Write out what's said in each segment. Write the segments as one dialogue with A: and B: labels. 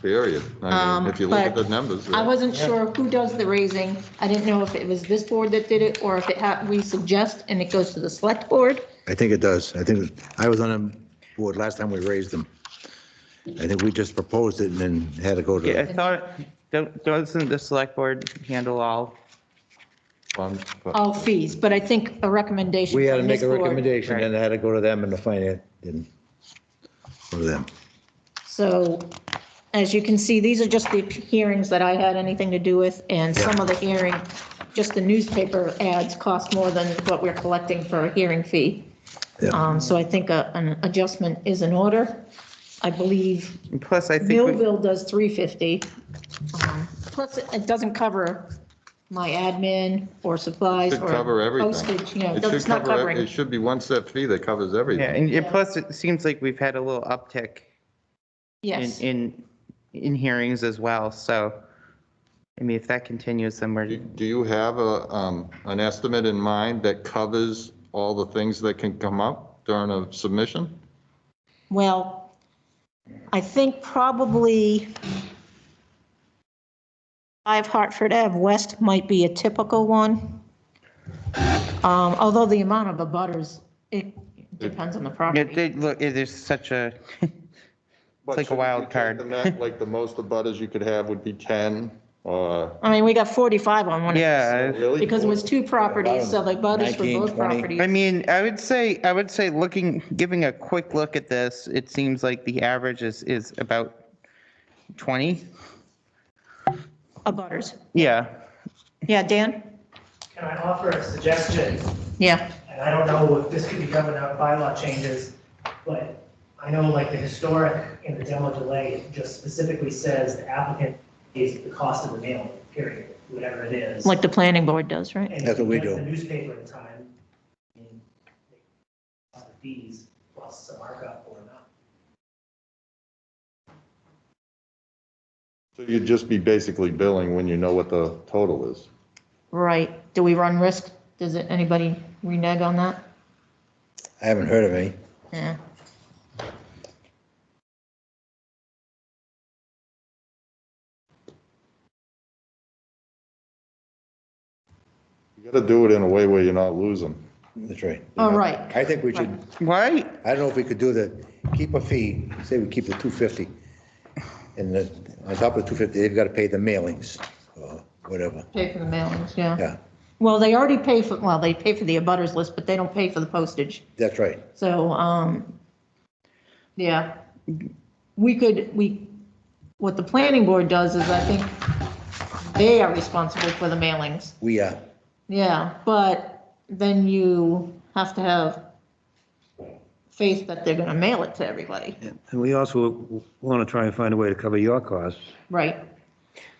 A: period. I
B: Um,
A: mean, if you look at
B: but
A: the numbers.
B: I
A: uh,
B: wasn't
C: Yeah.
B: sure who does the raising. I didn't know if it was this board that did it or if it had, we suggest and it goes to the select board.
D: I think it does. I think, I was on a board last time we raised them. I think we just proposed it and then had to go
C: Yeah, I
D: to,
C: thought, don't- doesn't the select board handle all?
A: um, but-
B: All fees, but I think a recommendation.
D: we had to
B: from
D: make a
B: this board.
D: recommendation and it had to go to them and the finance, and go to them.
B: So as you can see, these are just the hearings that I had anything to do with, and some of the hearing, just the newspaper ads cost more than what we're collecting for a hearing fee.
D: Yeah.
B: Um, So I think a- an adjustment is in order. I believe
C: And Plus, I think, we-
B: Millville does 350. Um, Plus, it it doesn't cover my admin or supplies
A: Should
B: or
A: cover everything.
B: postage, you know,
A: It
B: it's
A: should
B: not
A: cover ev-
B: covering.
A: It should be one set fee that covers
C: yeah,
A: everything.
C: and and plus, it seems like we've had a little uptick in,
B: Yes,
C: in, in hearings as well, so, I mean, if that continues, then
A: Do
C: we're,
A: do you have a, um, an estimate in mind that covers all the things that can come up during a submission?
B: well, I think probably five Hartford Ave West might be a typical one. Um, Although the amount of abutters, it depends on the
C: Yeah,
B: property.
C: they- look, it is such a,
A: But
C: like a
A: shouldn't
C: wild
A: you take
C: card.
A: the net, Like the most abutters you could have would be 10 or
B: I mean, we got 45 on one, of these,
C: yeah.
A: really?
B: because it was two properties, so the abutters for
D: 19,
B: both
D: 20.
B: properties.
C: I mean, I would say, I would say looking, giving a quick look at this, it seems like the average is, is about 20.
B: Abutters.
C: Yeah,
B: Yeah, Dan?
E: Can I offer a suggestion?
B: Yeah.
E: And I don't know if this could be governed out by bylaw changes, but I know like the historic and the demo delay just specifically says the applicant pays the cost of the mailing, period, whatever it is.
B: Like the planning board does, right?
E: And if
D: That's what we
E: you get
D: do.
E: The newspaper in time. I mean, they cost the Fees plus some markup or not.
A: So You'd just be basically billing when you know what the total is.
B: Right. Do we run risk? Does it, anybody renege on that?
D: I haven't heard of any.
B: Yeah.
A: You got to do it in a way where you're not losing.
D: That's right.
B: All right.
D: I think we should,
C: right?
D: I don't know if we could do the, keep a fee, say we keep the 250. And the, on top of the 250, they've got to pay the mailings, or whatever,
B: Pay for the mailings, yeah.
D: yeah,
B: Well, they already pay for, well, they pay for the abutters list, but they don't pay for the postage.
D: that's right.
B: So, um, yeah. We could, we, what the planning board does is I think they are responsible for the mailings.
D: We uh, are,
B: Yeah, but then you have to have faith that they're gonna mail it to everybody,
F: And we also want to try and find a way to cover your costs.
B: right?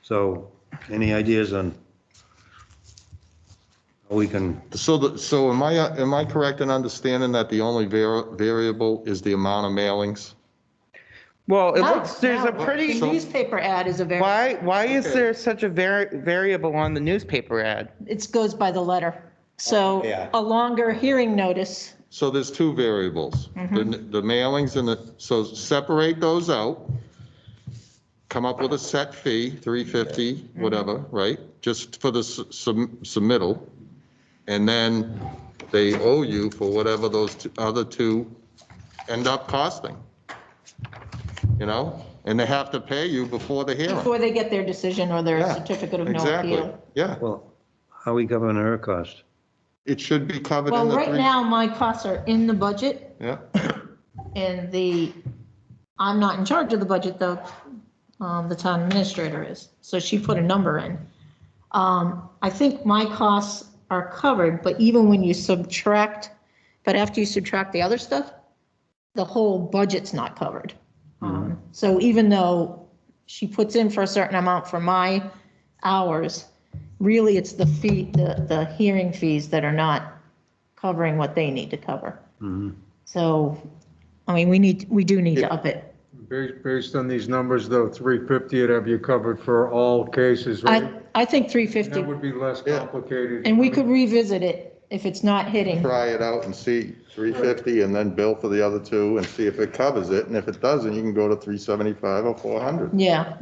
F: So any ideas on how we can,
A: So the, so am I, am I correct in understanding that the only var- variable is the amount of mailings?
C: Well, it
B: Now-
C: looks, there's a
B: now,
C: pretty,
B: The newspaper ad is a very,
C: why, why is there such a vari- variable on the newspaper ad?
B: it goes by the letter. So
D: Yeah.
B: a longer hearing notice,
A: So there's two variables, the the mailings and the, so separate those out. Come up with a set fee, 350, whatever, right? Just for the su- sub- submittal. And then they owe you for whatever those two- other two end up costing. You know? And they have to pay you before the hearing.
B: before they get their decision or their
A: Yeah,
B: certificate of no
A: Exactly,
B: appeal.
A: yeah.
F: well, how are we covering her cost?
A: It should be covered in
B: Well,
A: the
B: right
A: three.
B: now, my costs are in the budget
A: Yeah,
B: and the, I'm not in charge of the budget though. Um, the town administrator is, so she put a number in. Um, I think my costs are covered, but even when you subtract, but after you subtract the other stuff, the whole budget's not covered. Um, So even though she puts in for a certain amount for my hours, really it's the fee, the, the hearing fees that are not covering what they need to cover. So, I mean, we need, we do need to up it.
G: Based, based on these numbers, though, 350 would have you covered for all cases,
B: I,
G: right?
B: I think
G: That
B: 350,
G: would be less complicated.
B: and we could revisit it if it's not hitting.
A: try it out and see 350 and then bill for the other two and see if it covers it. And if it doesn't, you can go to 375 or 400.
B: Yeah.